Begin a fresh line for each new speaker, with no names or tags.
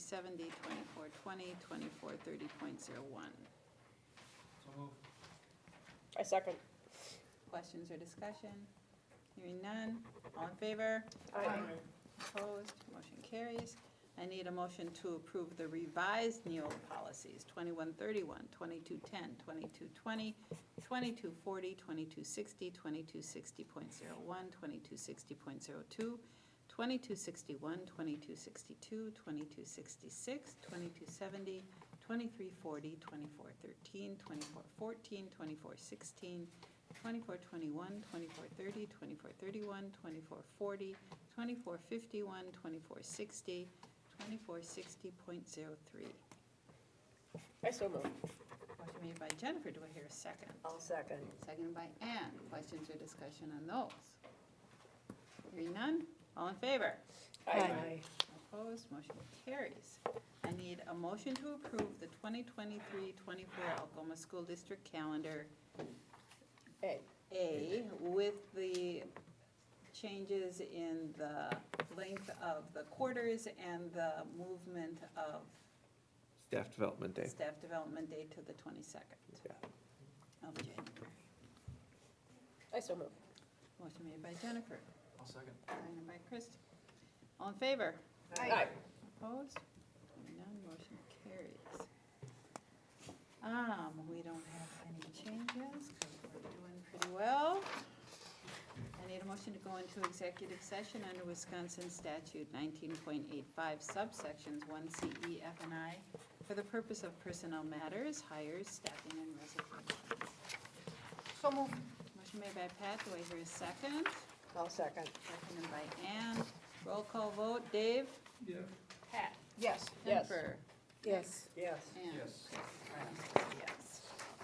seventy, twenty-four twenty, twenty-four thirty point zero one.
So move.
I second.
Questions or discussion? Hearing none, all in favor?
Aye.
Opposed, motion carries. I need a motion to approve the revised Neola policies, 2131, 2210, 2220, 2240, 2260, 2260.01, 2260.02, 2261, 2262, 2266, 2270, 2340, 2413, 2414, 2416, 2421, 2430, 2431, 2440, 2451, 2460, 2460.03.
I so move.
Motion made by Jennifer, do I hear a second?
I'll second.
Seconded by Ann. Questions or discussion on those? Hearing none, all in favor?
Aye.
Opposed, motion carries. I need a motion to approve the 2023-24 Algoma School District Calendar
Aye.
A with the changes in the length of the quarters and the movement of
Staff Development Day.
staff development day to the 22nd
Yeah.
of January.
I so move.
Motion made by Jennifer,
I'll second.
seconded by Kristen. All in favor?
Aye.
Opposed? Hearing None, motion carries. Um, we don't have any changes, 'cause we're doing pretty well. I need a motion to go into executive session under Wisconsin statute nineteen point eight five subsections one C E F and I for the purpose of personnel matters, hires, staffing, and resignations.
So move.
Motion made by Pat, do I hear a second?
I'll second.
Seconded by Ann. Roll call vote, Dave?
Yeah.
Pat.
Yes. Yes.
Jennifer?
Yes. Yes.
Ann?
Yes.
Right.